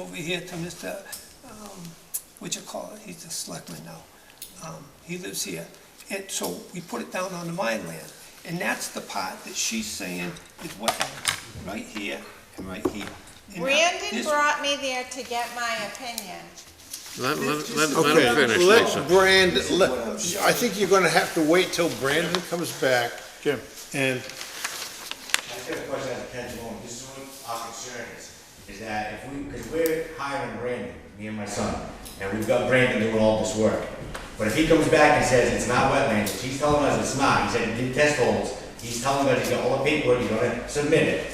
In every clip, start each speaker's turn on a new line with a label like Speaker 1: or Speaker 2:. Speaker 1: Over here to Mr., um, what you call it, he's a selectman now. Um, He lives here. And so we put it down on the mine land. And that's the part that she's saying is wetland, right here and right here. And now
Speaker 2: Brandon
Speaker 1: this-
Speaker 2: brought me there to get my opinion.
Speaker 3: Let, let, let, let
Speaker 4: Okay,
Speaker 3: him finish,
Speaker 4: let
Speaker 3: Lisa.
Speaker 4: Brandon, let, I think you're gonna have to wait till Brandon comes back. Jim. And
Speaker 5: I got a question on Ken Malone, this is what our concern is, is that if we, because we're hiring Brandon, me and my son, and we've got Brandon doing all this work. But if he comes back and says it's not wetlands, if he's telling us it's not, he said he did test holes, he's telling us he's got all the paperwork, he's gonna submit it.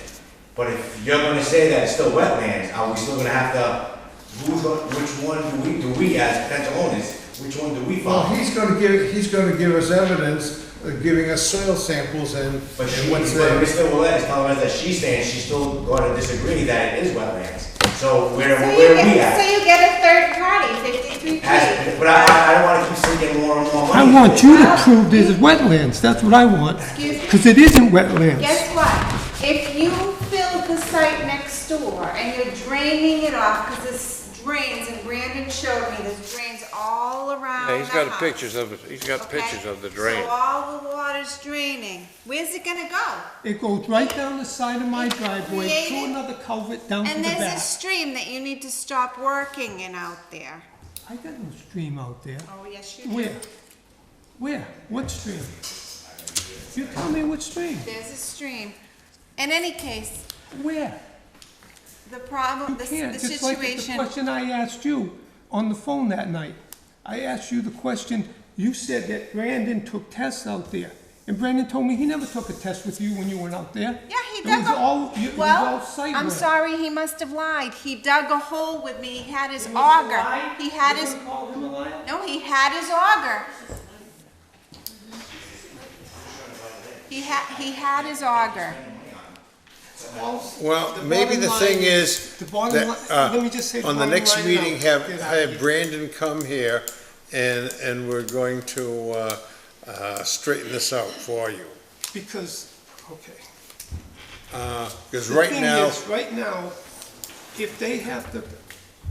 Speaker 5: But if you're gonna say that it's still wetlands, are we still gonna have to, who's, gonna- which one do we, do we as potential owners, which one do we
Speaker 4: Well,
Speaker 5: follow?
Speaker 4: he's gonna give, he's gonna give us evidence, uh, giving us soil samples and
Speaker 5: But she,
Speaker 4: and
Speaker 5: but
Speaker 4: what's there.
Speaker 5: Mr. Willett is telling us that she's saying she's still gonna disagree that it is wetlands. So where,
Speaker 2: So you
Speaker 5: where are we
Speaker 2: get, so
Speaker 5: at?
Speaker 2: you get a third party, fifty-three
Speaker 5: As-
Speaker 2: G.
Speaker 5: But I, I- I don't wanna keep sinking more and more
Speaker 6: I
Speaker 5: money.
Speaker 6: want you to prove this is wetlands, that's what I want,
Speaker 2: Excuse me?
Speaker 6: because it isn't wetlands.
Speaker 2: Guess what? If you fill the site next door and you're draining it off, because this drains, and Brandon showed me, there's drains all around
Speaker 3: Yeah, he's
Speaker 2: the
Speaker 3: got
Speaker 2: house,
Speaker 3: pictures of, it. he's got
Speaker 2: okay?
Speaker 3: pictures of the drain.
Speaker 2: So all the water's draining. Where's it gonna go?
Speaker 6: It goes right down the side of my driveway, to
Speaker 2: Created-
Speaker 6: another culvert down to the
Speaker 2: And there's a
Speaker 6: back.
Speaker 2: stream that you need to stop working in out there.
Speaker 6: I got no stream out there.
Speaker 2: Oh, yes, you do.
Speaker 6: Where? Where? What stream? You tell me what stream?
Speaker 2: There's a stream. In any case,
Speaker 6: Where?
Speaker 2: The
Speaker 6: You
Speaker 2: problem, the,
Speaker 6: can't,
Speaker 2: the
Speaker 6: just like the
Speaker 2: situation,
Speaker 6: question I asked you on the phone that night. I asked you the question, you said that Brandon took tests out there. And Brandon told me he never took a test with you when you went out there.
Speaker 2: yeah, he
Speaker 6: It
Speaker 2: dug
Speaker 6: was
Speaker 2: a.
Speaker 6: all, you- it was all
Speaker 2: Well,
Speaker 6: site
Speaker 2: I'm
Speaker 6: work.
Speaker 2: sorry, he must have lied. He dug a hole with me, he had his
Speaker 6: It was a
Speaker 2: auger.
Speaker 6: lie?
Speaker 2: He had
Speaker 6: You
Speaker 2: his,
Speaker 6: gonna call him a liar?
Speaker 2: no, he had his auger. He had, he had his auger.
Speaker 4: Well,
Speaker 6: The
Speaker 4: maybe
Speaker 6: bottom
Speaker 4: the
Speaker 6: line
Speaker 4: thing
Speaker 6: is-
Speaker 4: is,
Speaker 6: the bottom
Speaker 4: that,
Speaker 6: line-
Speaker 4: uh,
Speaker 6: let me just say the
Speaker 4: on the
Speaker 6: bottom
Speaker 4: next
Speaker 6: line
Speaker 4: meeting,
Speaker 6: now.
Speaker 4: have,
Speaker 6: Get out of
Speaker 4: have
Speaker 6: here.
Speaker 4: Brandon come here and, and we're going to, uh, uh, straighten this out for you.
Speaker 1: Because, okay.
Speaker 4: Uh 'cause cause
Speaker 1: The
Speaker 4: right
Speaker 1: thing
Speaker 4: now,
Speaker 1: is, Right now, if they have to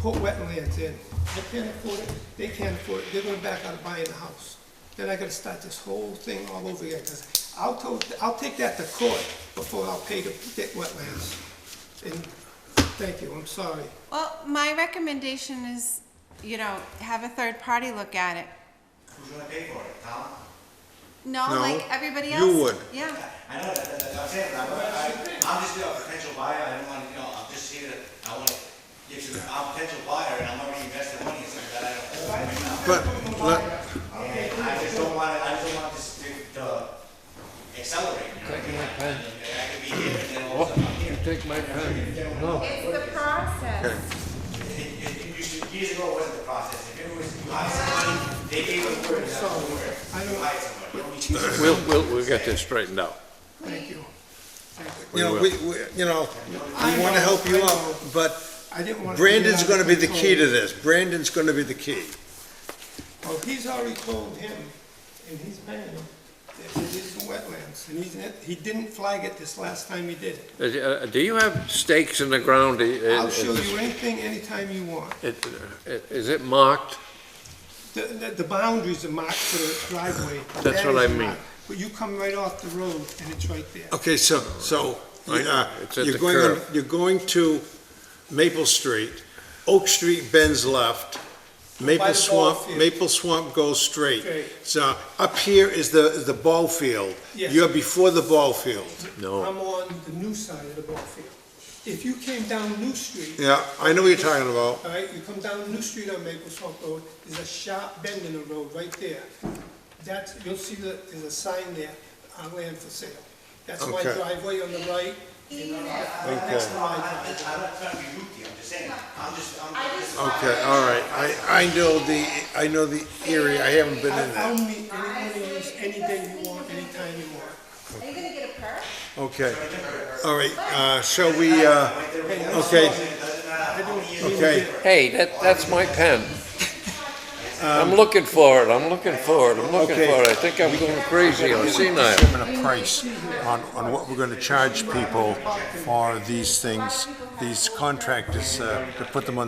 Speaker 1: put wetlands in, they can't afford it, they can't afford it, they're gonna back out of buying a house. Then I gotta start this whole thing all over again, because I'll to, I'll take that to court before I'll pay to get wetlands. And, thank you, I'm sorry.
Speaker 2: Well, my recommendation is, you know, have a third party look at it.
Speaker 5: Who's gonna pay for it, Tom?
Speaker 2: No,
Speaker 4: No,
Speaker 2: like everybody
Speaker 4: you
Speaker 2: else.
Speaker 4: would.
Speaker 2: Yeah.
Speaker 5: I know, that, that, that- I'm saying, I'm, I- I'm just a potential buyer, I don't wanna, you know, I'm just here, to- I wanna, get you I'm a potential buyer, and I'm already invested money in something that I don't own right now.
Speaker 4: but, let-
Speaker 5: And I just don't wanna, I just don't want this to, to accelerate, you know? what I mean? I mean, I could be here, and then all of a sudden I'm here.
Speaker 3: Take my pen.
Speaker 2: It's the process.
Speaker 5: It- it- it used to- Years ago, it wasn't the process, if it was, you hire somebody, they gave us word, that's the word, you hire somebody, you don't need to.
Speaker 3: We'll, we'll, we'll get this straightened out.
Speaker 1: Thank you.
Speaker 4: you know, we, we, you know, we wanna help you out, but
Speaker 1: I didn't want.
Speaker 4: Brandon's gonna be the key to this. Brandon's gonna be the key.
Speaker 1: Well, Oh, he's already told him, and he's paying him, that it is wetlands, and he's, he didn't flag it this last time he did it.
Speaker 3: Uh, uh, Do you have stakes in the ground? I- I-
Speaker 1: I'll show you anything, anytime you want.
Speaker 3: it- it- Is it marked?
Speaker 1: The, the, the boundaries are marked for the driveway.
Speaker 3: That's
Speaker 1: That
Speaker 3: what I
Speaker 1: is
Speaker 3: mean.
Speaker 1: marked. But you come right off the road and it's right there.
Speaker 4: Okay, so, so, uh,
Speaker 3: It's at
Speaker 4: you're
Speaker 3: the
Speaker 4: going, on-
Speaker 3: curve.
Speaker 4: you're going to Maple Street, Oak Street bends left,
Speaker 1: By
Speaker 4: Maple
Speaker 1: the ball
Speaker 4: Swamp,
Speaker 1: field.
Speaker 4: Maple Swamp goes straight.
Speaker 1: Straight.
Speaker 4: So up here is the, is the ball field.
Speaker 1: Yes.
Speaker 4: You're before the ball field.
Speaker 3: No.
Speaker 1: I'm on the new side of the ball field. If you came down New Street,
Speaker 4: Yeah, I know what you're talking about.
Speaker 1: all right, you come down New Street on Maple Swamp Road, there's a sharp bend in the road right there. That's, you'll see that there's a sign there, uh, land for sale. That's my
Speaker 4: Okay.
Speaker 1: driveway on the right.
Speaker 4: Okay,
Speaker 5: No, I, I, I'm not trying to be rude to you, I'm just saying, I'm just, I'm.
Speaker 4: okay, all right. I, I know the, I know the area. I haven't been in
Speaker 1: I-
Speaker 4: there.
Speaker 1: I'll meet anyone of you any day you want, anytime you want.
Speaker 2: Are you gonna get a perk?
Speaker 4: Okay. All right, uh, shall we, uh, okay, okay.
Speaker 3: Hey, that, that's my pen.
Speaker 1: Um,
Speaker 3: I'm looking for it, I'm looking for it, I'm looking
Speaker 4: okay.
Speaker 3: for it. I think I'm going crazy or senile.
Speaker 4: determine a price on, on what we're gonna charge people for these things, these contractors, uh, to put them on